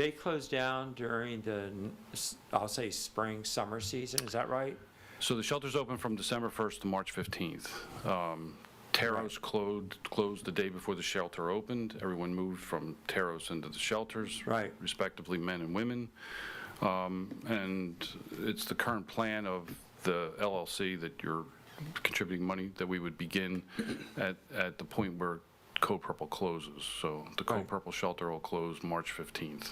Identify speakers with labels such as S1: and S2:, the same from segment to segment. S1: They close down during the, s- I'll say, spring, summer season, is that right?
S2: So the shelter's open from December 1st to March 15th. Um, Taros closed, closed the day before the shelter opened. Everyone moved from Taros into the shelters.
S1: Right.
S2: Respectively, men and women. Um, And it's the current plan of the LLC that you're contributing money, that we would begin at, at the point where Code Purple closes. So the
S1: Right.
S2: Code Purple shelter will close March 15th.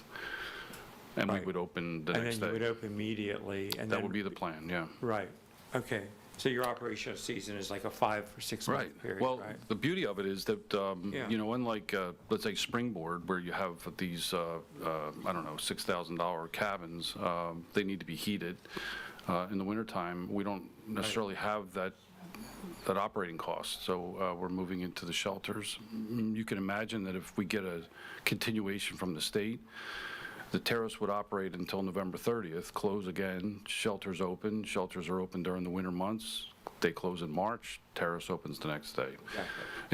S2: And we
S1: Right.
S2: would open the
S1: And
S2: next
S1: then you would
S2: day.
S1: open immediately, and
S2: That would
S1: then,
S2: be the plan, yeah.
S1: right, okay. So your operational season is like a five or
S2: Right.
S1: six-month period,
S2: Well,
S1: right?
S2: the beauty of it is that, um,
S1: Yeah.
S2: you know, unlike, uh, let's say Springboard, where you have these, uh, uh, I don't know, $6,000 cabins, um, they need to be heated uh, in the wintertime. We don't necessarily have that, that operating cost, so uh, we're moving into the shelters. Mm, You can imagine that if we get a continuation from the state, the terrace would operate until November 30th, close again, shelters open, shelters are open during the winter months, they close in March, terrace opens the next day.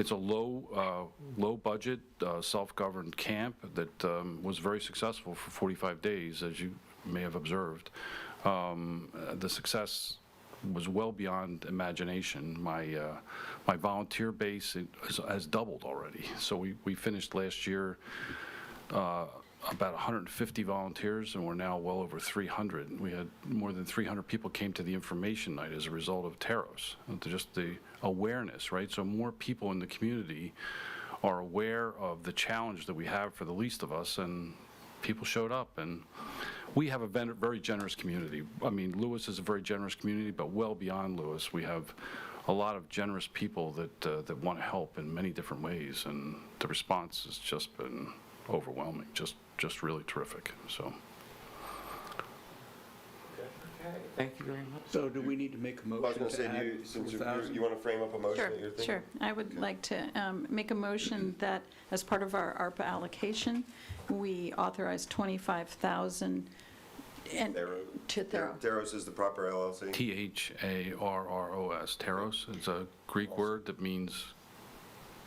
S2: It's a low, uh, low-budget, uh, self-governed camp that um, was very successful for 45 days, as you may have observed. Um, uh, The success was well beyond imagination. My, uh, my volunteer base has- has doubled already. So we, we finished last year uh, about 150 volunteers, and we're now well over 300. We had more than 300 people came to the information night as a result of Taros, and to just the awareness, right? So more people in the community are aware of the challenge that we have for the least of us, and people showed up, and we have a ven- very generous community. I mean, Lewis is a very generous community, but well beyond Lewis, we have a lot of generous people that, uh, that want to help in many different ways, and the response has just been overwhelming, just, just really terrific, so.
S1: Thank you very much.
S3: So do we need to make a
S4: I was
S3: motion
S4: going to say,
S3: to
S4: do you,
S3: add
S4: since
S3: 4,000?
S4: you want to frame up a motion
S5: Sure,
S4: that you're thinking?
S5: sure. I would like to um, make a motion that, as part of our ARPA allocation, we authorize 25,000 and-
S4: Thero.
S5: to Thero.
S4: Theros is the proper LLC?
S2: T-H-A-R-R-O-S, Taros, it's a Greek word that means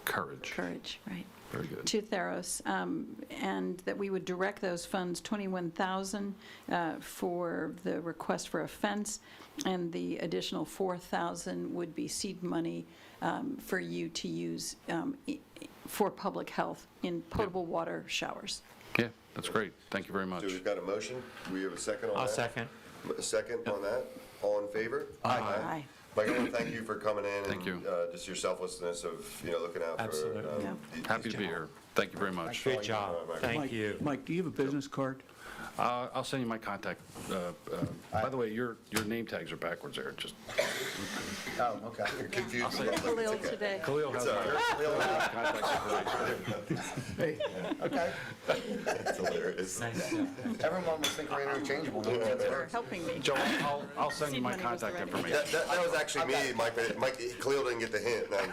S2: courage.
S5: Courage, right.
S2: Very good.
S5: To Theros, um, and that we would direct those funds, 21,000 uh, for the request for a fence, and the additional 4,000 would be seed money um, for you to use um, i- i- for public health in potable water showers.
S2: Yeah, that's great, thank you very much.
S4: So we've got a motion, we have a second on that?
S1: I'll second.
S4: A second on that, all in favor?
S5: Aye.
S4: Michael, I wanna thank you for coming in.
S2: Thank
S4: and,
S2: you.
S4: uh, Just your selflessness of, you know, looking out for.
S1: Absolutely.
S4: um,
S5: Yeah.
S4: these
S2: Happy to be here, thank you very much.
S1: Good job,
S4: Mike.
S1: thank
S3: Mike-
S1: you.
S3: Mike, do you have a business card?
S2: Uh, I'll send you my contact. uh, uh, By the way, your, your name tags are backwards there, just.
S6: Oh, okay.
S4: Confused.
S5: Khalil today.
S2: Khalil has my contact information.
S6: Hey, okay.
S4: That's hilarious.
S6: Everyone was thinking we're interchangeable.
S5: Thanks for helping me.
S2: Joe, I'll, I'll send you my
S5: Seed money was the
S2: contact
S5: right
S2: information.
S4: That, that that was actually me, Mike, but Mike, Cleo didn't get the hint. and I-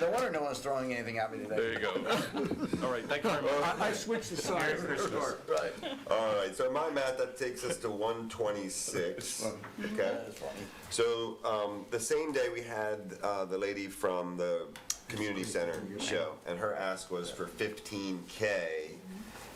S6: No wonder no one's throwing anything at me
S2: There
S6: today.
S2: you go. All right, thank you very much.
S3: I switched the size of the card.
S4: Right. All right, so my math, that takes us to 126. Okay. So um, the same day we had uh, the lady from the community center show, and her ask was for 15K.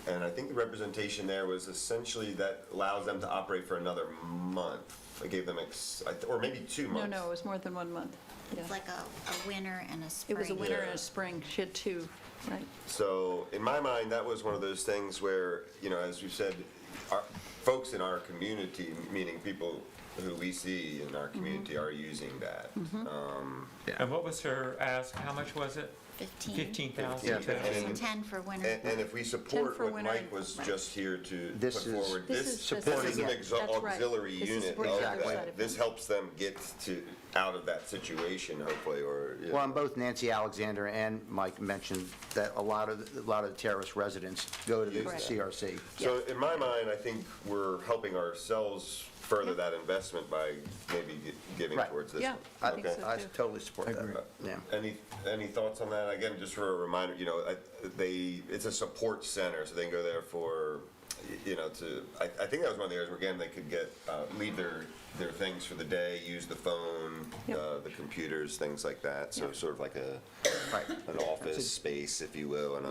S4: And I think the representation there was essentially that allows them to operate for another month. I gave them, ex- I th- or maybe two
S5: No,
S4: months.
S5: no, it was more than one month.
S7: It's like a, a winter and a spring.
S5: It was a winter and
S4: Yeah.
S5: a spring, she had two, right?
S4: So in my mind, that was one of those things where, you know, as you said, our, folks in our community, meaning people who we see in
S5: Mm-hmm.
S4: our community, are using that. Um,
S1: And what was her ask, how much was it?
S7: Fifteen.
S1: 15,000?
S4: Yeah,
S1: Okay.
S4: and-
S7: Ten for winter.
S4: and, and if we support
S5: for
S4: what
S5: winter
S4: Mike was
S5: right.
S4: just here to put
S6: This is-
S4: forward,
S5: This
S4: this
S5: is just
S4: supports
S5: supporting
S4: an
S5: it.
S4: exo-
S5: That's right.
S4: auxiliary
S5: This is
S4: unit.
S5: supporting
S4: of
S5: the other
S4: that.
S5: side of
S4: This
S5: it.
S4: helps them get to out of that situation, hopefully, or you
S6: Well,
S4: know.
S6: and both Nancy Alexander and Mike mentioned that a lot of, a lot of terrorist residents go to the
S5: Correct.
S6: CRC.
S4: So in my mind, I think we're helping ourselves further that investment by maybe gi- giving
S6: Right.
S4: towards this.
S5: Yeah,
S4: one.
S5: I
S4: Okay.
S5: think so
S6: I
S5: too.
S6: totally support that. Yeah.
S4: Any, any thoughts on that? Again, just for a reminder, you know, I- they, it's a support center, so they can go there for y- you know, to, I, I think that was one of the areas where, again, they could get, uh, leave their, their things for the day, use the phone,
S5: Yep.
S4: uh, the computers, things like that. So sort of like a,
S6: Right.
S4: an office space, if you will, and a